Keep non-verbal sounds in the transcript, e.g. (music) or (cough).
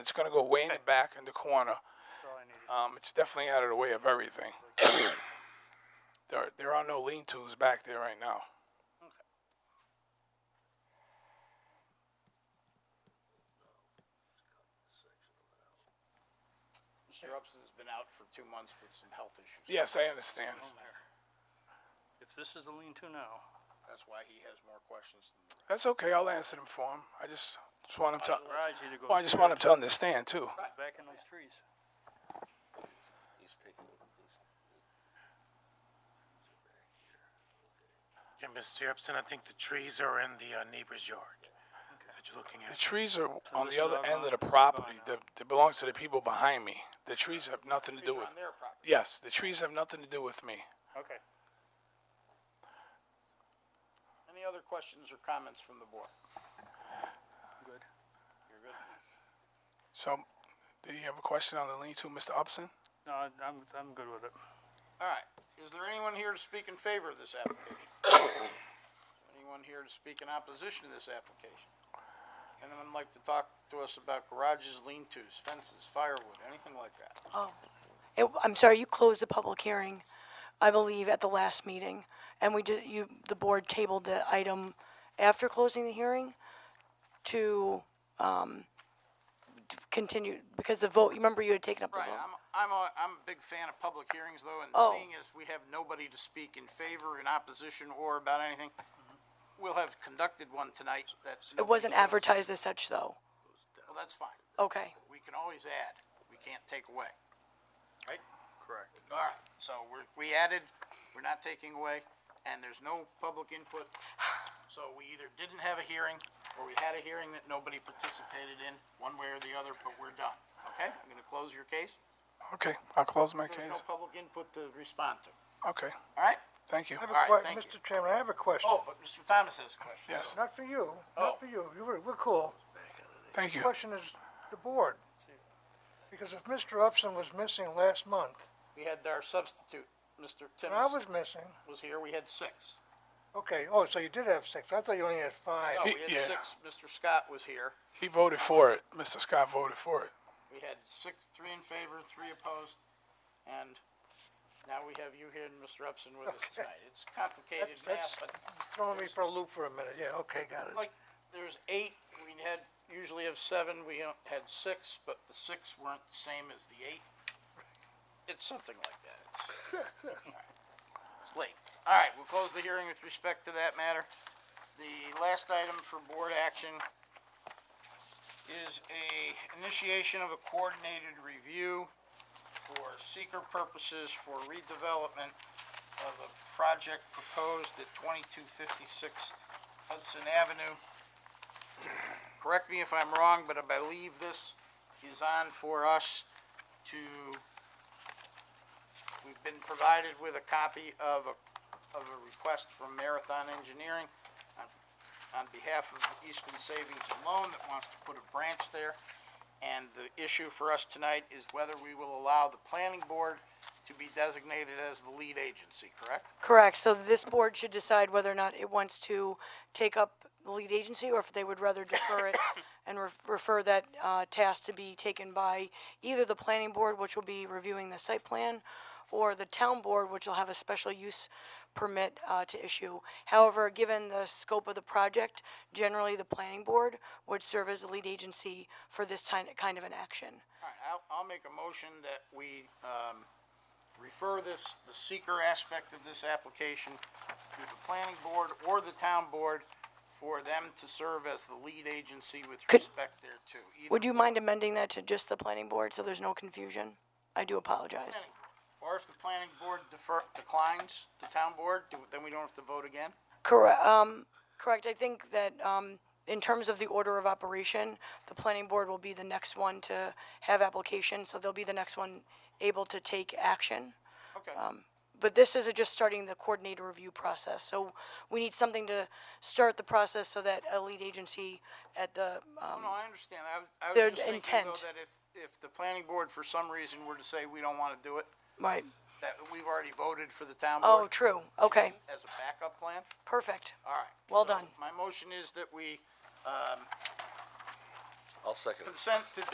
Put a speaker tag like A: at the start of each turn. A: It's going to go way in the back in the corner.
B: That's all I needed.
A: Um, it's definitely out of the way of everything. (coughs) there, there are no lean-tos back there right now.
C: Mr. Upson's been out for two months with some health issues.
A: Yes, I understand.
B: If this is a lean-to now,
C: That's why he has more questions than the
A: That's okay. I'll answer them for him. I just, just want him to.
B: garage either goes.
A: Well, I just want him to understand too.
B: here or Back in those trees.
D: He's taking, he's
E: Yeah, Mr. Upson, I think the trees are in the uh, neighbor's yard that you're looking
A: The
E: at.
A: trees are on
B: this
A: the
B: is
A: other
B: all
A: end of
B: gone?
A: the property. That that belongs to the people behind me. The trees have nothing to do
C: He's
A: with.
C: on their property.
A: Yes, the trees have nothing to do with me.
B: Okay.
C: Any other questions or comments from the board?
B: Good.
C: You're good?
A: So, do you have a question on the lean-to, Mr. Upson?
B: No, I- I'm, I'm good with it.
C: All right. Is there anyone here to speak in favor of this application? Anyone here to speak in opposition to this application? Anyone like to talk to us about garages, lean-tos, fences, firewood, anything like that?
F: It, I'm sorry, you closed the public hearing, I believe, at the last meeting, and we did, you, the board tabled the item after closing the hearing to, um, to continue, because the vote, you remember you had taken up the
C: Right,
F: vote?
C: I'm, I'm a, I'm a big fan of public hearings though, and
F: Oh.
C: seeing as we have nobody to speak in favor, in opposition, or about anything, we'll have conducted one tonight that's.
F: It wasn't advertised as such, though.
C: Well, that's fine.
F: Okay,
C: We can always add. We can't take away. Right?
D: correct.
C: All right, so we're, we added, we're not taking away, and there's no public input. So we either didn't have a hearing, or we had a hearing that nobody participated in, one way or the other, but we're done. Okay, I'm gonna close your case.
A: Okay, I'll close my case.
C: There's no public input to respond to.
A: Okay,
C: All right?
A: thank you.
G: I have
C: All right,
G: a question,
C: thank you.
G: Mr. Chairman, I have a question.
C: Oh, but Mr. Thomas has a question.
A: Yes,
G: Not for you,
C: Oh.
G: not for you, you were, we're cool.
A: thank you.
G: Question is the board. Because if Mr. Upson was missing last month,
C: We had our substitute, Mr.
G: and I
C: Timms
G: was missing,
C: was here, we had six.
G: okay, oh, so you did have six, I thought you only had five.
C: No, Oh, we
A: yeah.
C: had six, Mr. Scott was here.
A: He voted for it. Mr. Scott voted for it.
C: We had six, three in favor, three opposed, and now we have you here and Mr. Upson with us tonight. It's complicated math,
G: That's- that's-
C: but
G: It's Throwing me for a loop for a minute, yeah, okay, got it.
C: like, there's eight, we had, usually have seven, we don't- had six, but the six weren't the same as the eight. It's something like that. It's- (laughs) all right. It's late. All right, we'll close the hearing with respect to that matter. The last item for board action is a initiation of a coordinated review for seeker purposes for redevelopment of a project proposed at twenty-two fifty-six Hudson Avenue. Correct me if I'm wrong, but I believe this is on for us to, we've been provided with a copy of a, of a request from Marathon Engineering on on behalf of Eastman Savings and Loan that wants to put a branch there. And the issue for us tonight is whether we will allow the planning board to be designated as the lead agency, correct?
F: correct, so this board should decide whether or not it wants to take up the lead agency, or if they would rather defer it and ref- refer that, uh, task to be taken by either the planning board, which will be reviewing the site plan, or the town board, which will have a special use permit uh, to issue. However, given the scope of the project, generally the planning board would serve as the lead agency for this ti- kind of an action.
C: All right, I'll, I'll make a motion that we, um, refer this, the seeker aspect of this application to the planning board or the town board for them to serve as the lead agency with
F: Could-
C: respect thereto. either
F: Would you mind amending that to just the planning board so there's no confusion? I do apologize.
C: Or if the planning board defer, declines the town board, do- then we don't have to vote again?
F: Correct, um, correct, I think that, um, in terms of the order of operation, the planning board will be the next one to have application, so they'll be the next one able to take action.
C: Okay,
F: Um, But this is just starting the coordinator review process, so we need something to start the process so that a lead agency at the, um,
C: Oh, no, I understand, I was, I was
F: their
C: just thinking though
F: intent.
C: that if, if the planning board for some reason were to say we don't wanna do it,
F: right,
C: that we've already voted for the town
F: oh,
C: board
F: true, okay,
C: as a backup plan?
F: perfect,
C: All right.
F: Well
C: So
F: done.
C: My motion is that we
D: I'll second it.
C: um, consent to